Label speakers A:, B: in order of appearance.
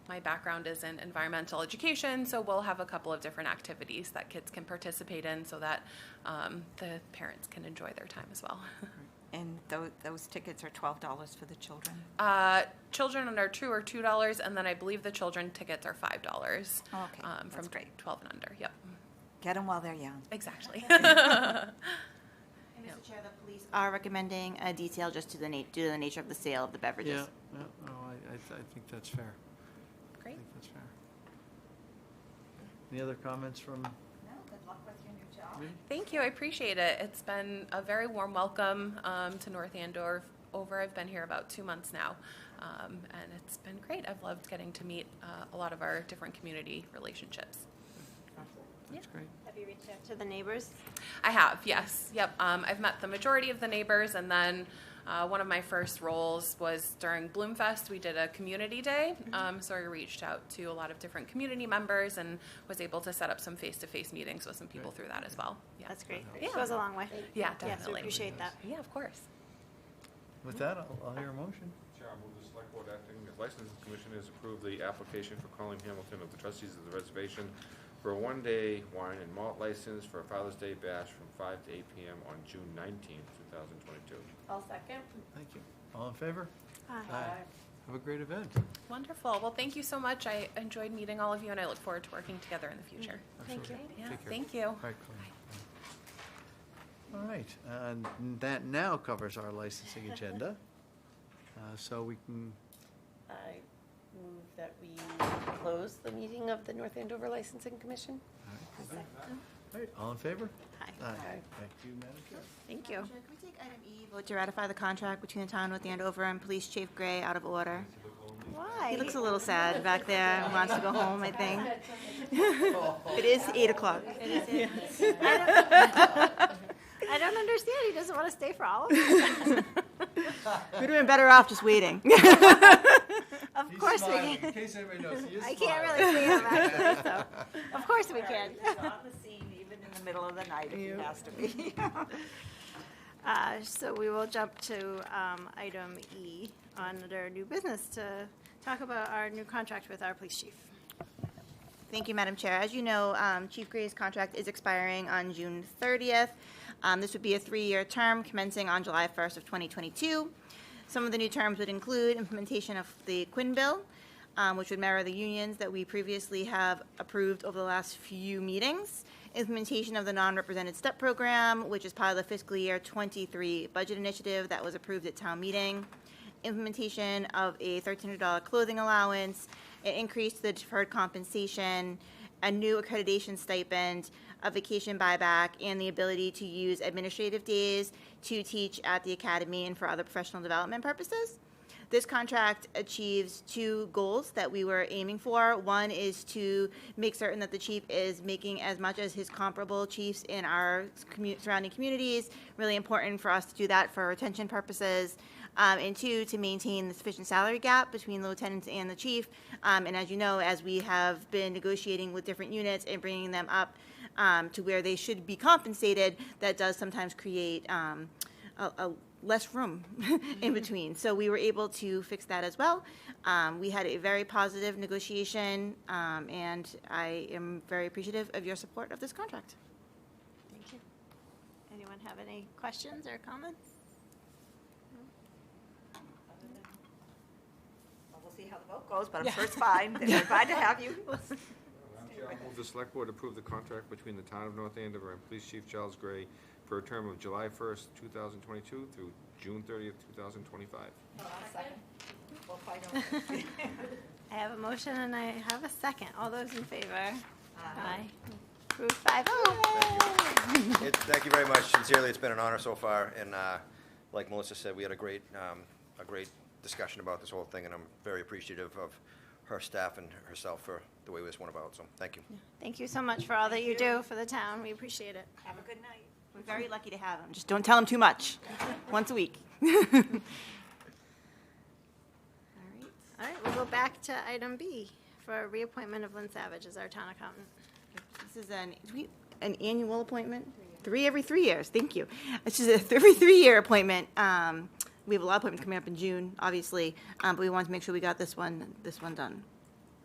A: my background is in environmental education, so we'll have a couple of different activities that kids can participate in so that um, the parents can enjoy their time as well.
B: And those, those tickets are twelve dollars for the children.
A: Uh, children under two are two dollars, and then I believe the children tickets are five dollars. um,
B: Oh, okay.
A: from
B: That's great.
A: Twelve and under. Yep,
B: Get them while they're young.
A: exactly.
C: And
A: Yeah.
C: Mr. Chair, the police are recommending a detail just to the na, due to the nature of the sale of the
D: Yeah,
C: beverages.
D: yeah, no, I, I, th- I think that's fair. I
A: Great.
D: think that's fair. Any other comments from
C: No, good luck with your new job.
D: me?
A: Thank you. I appreciate it. It's been a very warm welcome um, to North Andover. Over, I've been here about two months now, um, and it's been great. I've loved getting to meet uh, a lot of our different community relationships.
D: That's great.
E: Have you reached out to the neighbors?
A: I have, yes. Yep. Um, I've met the majority of the neighbors, and then uh, one of my first roles was during Bloomfest. We did a community day,
E: Mm-hmm.
A: um, so I reached out to a lot of different community members and was able to set up some face to face meetings with some people through that as well. Yeah.
E: That's great.
A: Yeah.
E: Goes a long way.
A: yeah,
E: Yes, we
A: definitely.
E: appreciate that.
A: yeah, of course.
D: With that, I'll, I'll hear a motion.
F: Chair, I move the Select Board Acting as Licensing Commission has approved the application for Colleen Hamilton of the Trustees of the Reservation for a one-day wine and malt license for a Father's Day bash from five to eight PM on June nineteenth, two thousand twenty-two.
E: I'll second.
D: Thank you. All in favor? Have a great event.
A: Wonderful. Well, thank you so much. I enjoyed meeting all of you, and I look forward to working together in the future.
E: Mm-hmm. Thank you.
A: Yeah,
D: Take care.
A: thank you.
D: All right, Colleen. All right, and that now covers our licensing agenda. Uh, So we can,
G: I move that we close the meeting of the North Andover Licensing Commission.
D: all right. All right, all in favor? Aye. Thank you, Madam Chair.
G: Thank you.
C: Chair, can we take item E, vote to ratify the contract between the town with Andover and Police Chief Gray out of order?
E: Why?
C: He looks a little sad back there, and wants to go home, I think. It is eight o'clock.
E: I don't understand. He doesn't want to stay for all of us.
C: We'd have been better off just waiting.
E: Of course we can.
D: In case anybody knows, he is
E: I can't really see him actually, so, of course we can.
C: Even in the middle of the night, if it has to be.
E: Uh, So we will jump to um, item E on our new business to talk about our new contract with our police chief.
C: Thank you, Madam Chair. As you know, um, Chief Gray's contract is expiring on June 30th. Um, This would be a three-year term commencing on July 1st of 2022. Some of the new terms would include implementation of the Quinn Bill, um, which would mirror the unions that we previously have approved over the last few meetings, implementation of the non-represented step program, which is part of the fiscal year 23 budget initiative that was approved at town meeting, implementation of a $1,300 clothing allowance, an increase to the deferred compensation, a new accreditation stipend, a vacation buyback, and the ability to use administrative days to teach at the academy and for other professional development purposes. This contract achieves two goals that we were aiming for. One is to make certain that the chief is making as much as his comparable chiefs in our commu- surrounding communities. Really important for us to do that for retention purposes. Um, and two, to maintain the sufficient salary gap between the lieutenants and the chief. Um, and as you know, as we have been negotiating with different units and bringing them up um, to where they should be compensated, that does sometimes create um, a, a less room
E: Mm-hmm.
C: in between. So we were able to fix that as well. Um, we had a very positive negotiation, um, and I am very appreciative of your support of this contract.
E: Thank you. Anyone have any questions or comments?
B: We'll see how the vote goes, but I'm sure it's fine. They're glad to have you.
F: Madam Chair, I move the Select Board approve the contract between the Town of North Andover and Police Chief Charles Gray for a term of July first, two thousand twenty-two through June thirtieth, two thousand twenty-five.
E: I have a motion and I have a second. All those in favor? Aye. Approved five oh.
H: It, thank you very much. Sincerely, it's been an honor so far, and uh, like Melissa said, we had a great, um, a great discussion about this whole thing, and I'm very appreciative of her staff and herself for the way this went about, so thank you.
E: Thank you so much for all that you do for the town. We appreciate it.
B: Have a good night.
C: We're very lucky to have him. Just don't tell him too much. Once a week.
E: All right. All right, we'll go back to item B for reappointment of Lynn Savage as our town accountant.
C: This is an, do we- an annual appointment? Three every three years, thank you. This is a th- every three-year appointment. Um, We have a lot of appointments coming up in June, obviously, um, but we wanted to make sure we got this one, this one done.